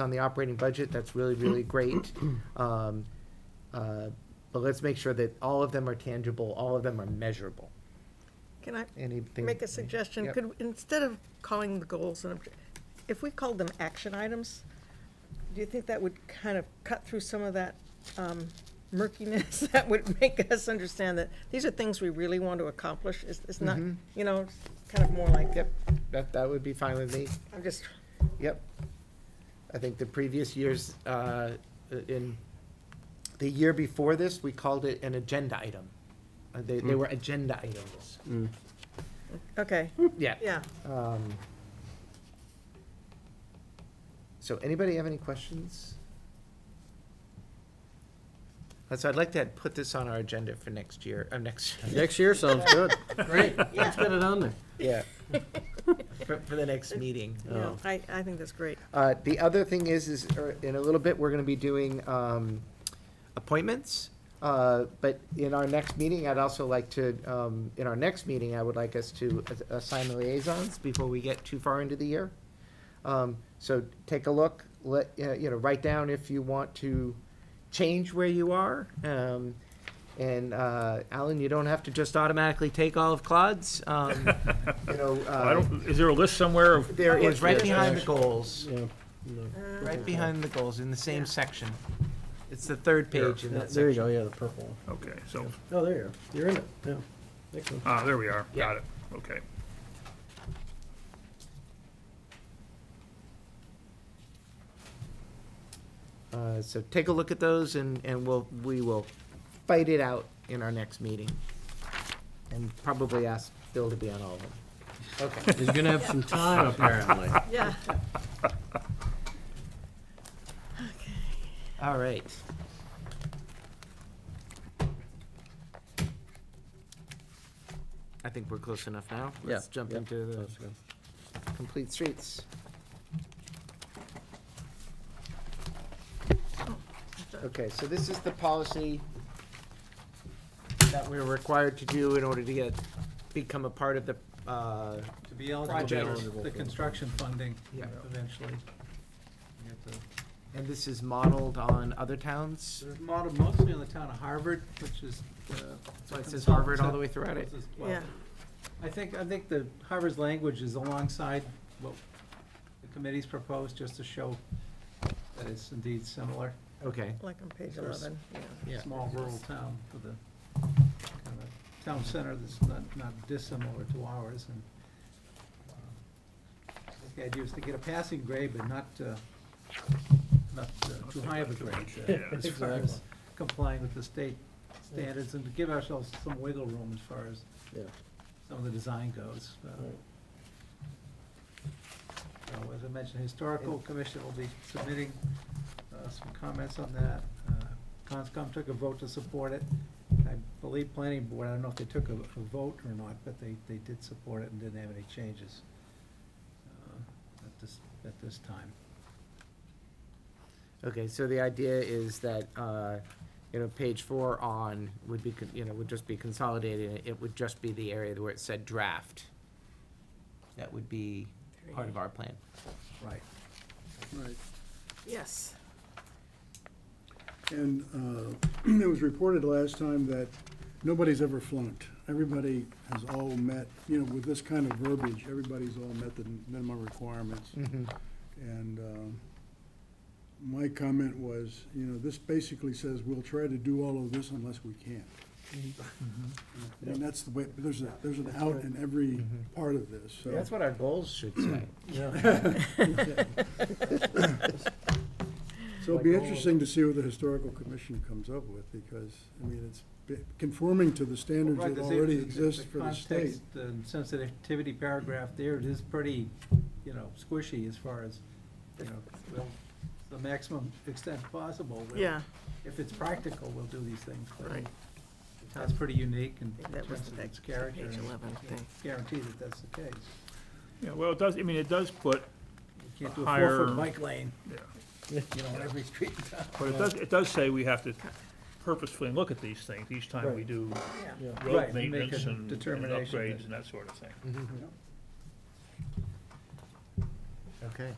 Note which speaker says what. Speaker 1: on the operating budget, that's really, really great. Um, uh, But let's make sure that all of them are tangible, all of them are measurable,
Speaker 2: Can I
Speaker 1: anything.
Speaker 2: make a suggestion?
Speaker 1: Yep.
Speaker 2: Could, instead of calling the goals and, obje- if we called them action items, do you think that would kind of cut through some of that um, murkiness that would make us understand that these are things we really want to accomplish? It's, it's not,
Speaker 1: Mhm.
Speaker 2: you know, it's kind of more like,
Speaker 1: Yep, that, that would be fine with me,
Speaker 2: I'm just,
Speaker 1: yep. I think the previous years, uh, in, the year before this, we called it an agenda item. Uh, They, they were agenda items,
Speaker 2: okay,
Speaker 1: yeah.
Speaker 2: yeah.
Speaker 1: Um, So anybody have any questions? Uh, So I'd like to put this on our agenda for next year, uh, next,
Speaker 3: Next year sounds good. Great, let's get it on there.
Speaker 1: yeah. For, for the next meeting.
Speaker 2: No, I, I think that's great.
Speaker 1: Uh, the other thing is, is er, in a little bit, we're gonna be doing, um, appointments. Uh, but in our next meeting, I'd also like to, um, in our next meeting, I would like us to as- assign liaisons before we get too far into the year. Um, so take a look, let, uh, you know, write down if you want to change where you are. Um, and, uh, Alan, you don't have to just automatically take all of Claude's, um, you know,
Speaker 4: I
Speaker 1: uh,
Speaker 4: don't, is there a list somewhere of,
Speaker 1: there is right
Speaker 3: Yes,
Speaker 1: behind the
Speaker 3: actually.
Speaker 1: goals.
Speaker 3: Yeah, no.
Speaker 1: Right behind the goals, in the
Speaker 2: Yeah.
Speaker 1: same section. It's the third page in that
Speaker 3: There you go,
Speaker 1: section.
Speaker 3: yeah, the purple one.
Speaker 4: okay, so,
Speaker 3: Oh, there you are. You're in it, yeah. Excellent.
Speaker 4: ah, there we are,
Speaker 1: Yeah.
Speaker 4: got it, okay.
Speaker 1: Uh, so take a look at those and, and we'll, we will fight it out in our next meeting. And probably ask Bill to be on all of them. Okay,
Speaker 3: He's gonna have some time apparently.
Speaker 2: Yeah.
Speaker 1: all right. I think we're close enough now. Let's
Speaker 3: Yeah,
Speaker 1: jump
Speaker 3: yeah.
Speaker 1: into the
Speaker 3: Sounds good.
Speaker 1: complete streets. Okay, so this is the policy that we're required to do in order to get, become a part of the, uh,
Speaker 5: To be eligible
Speaker 1: Projects.
Speaker 5: for the construction funding
Speaker 1: Yeah.
Speaker 5: eventually. You have to-
Speaker 1: and this is modeled on other towns?
Speaker 5: It's modeled mostly on the town of Harvard, which is. uh,
Speaker 1: So it says Harvard all the way throughout it?
Speaker 2: Yeah.
Speaker 5: I think, I think the Harvard's language is alongside what the committee's proposed, just to show that it's indeed similar.
Speaker 1: Okay,
Speaker 2: Like on page
Speaker 5: There's-
Speaker 2: 11, yeah.
Speaker 1: Yeah.
Speaker 5: Small rural town with a kind of town center that's not, not dissimilar to ours and. um, The idea is to get a passing grade, but not, uh, not uh, too high of a grade. uh,
Speaker 4: Yeah,
Speaker 5: As far as complying with the state standards and to give ourselves some wiggle room as far as
Speaker 3: Yeah.
Speaker 5: some of the design goes. uh,
Speaker 3: Right.
Speaker 5: so as I mentioned, Historical Commission will be submitting uh, some comments on that. Uh, Conscom took a vote to support it. I believe Planning Board, I don't know if they took a, a vote or not, but they, they did support it and didn't have any changes uh, at this, at this time.
Speaker 1: okay, so the idea is that, uh, you know, page four on would be, con- you know, would just be consolidated, it would just be the area where it said draft. That would be part of our plan.
Speaker 5: Right.
Speaker 6: Right,
Speaker 2: Yes.
Speaker 6: and uh, it was reported last time that nobody's ever flunked. Everybody has all met, you know, with this kind of verbiage, everybody's all met the minimum requirements. And um, my comment was, you know, this basically says we'll try to do all of this unless we can. I mean, that's the way, there's a, there's an out in every part of this, so.
Speaker 1: That's what our goals should say.
Speaker 6: So it'll be interesting to see what the historical commission comes up with, because, I mean, it's be- conforming to the standards
Speaker 5: Right,
Speaker 6: that
Speaker 5: the same-
Speaker 6: already exist for the
Speaker 5: context,
Speaker 6: state.
Speaker 5: The sensitivity paragraph there, it is pretty, you know, squishy as far as, you know, we'll, the maximum extent possible. we'll-
Speaker 2: Yeah,
Speaker 5: If it's practical, we'll do these things. but
Speaker 2: Right.
Speaker 5: The town's pretty unique in in
Speaker 2: that
Speaker 5: terms
Speaker 2: was
Speaker 5: of
Speaker 2: that
Speaker 5: its character.
Speaker 2: page
Speaker 5: and
Speaker 2: 11
Speaker 5: I can't
Speaker 2: thing.
Speaker 5: Guarantee that that's the case.
Speaker 4: Yeah, well, it does, I mean, it does put,
Speaker 5: You can't do a
Speaker 4: Higher-
Speaker 5: four-foot bike lane,
Speaker 4: yeah,
Speaker 5: you know, on every street in town.
Speaker 4: but it does, it does say we have to purposefully look at these things each time we
Speaker 3: Right.
Speaker 4: do
Speaker 2: yeah.
Speaker 5: Right,
Speaker 4: road
Speaker 5: make
Speaker 4: maintenance
Speaker 5: a
Speaker 4: and and
Speaker 5: determination that-
Speaker 4: upgrades and that sort of thing.
Speaker 1: Okay.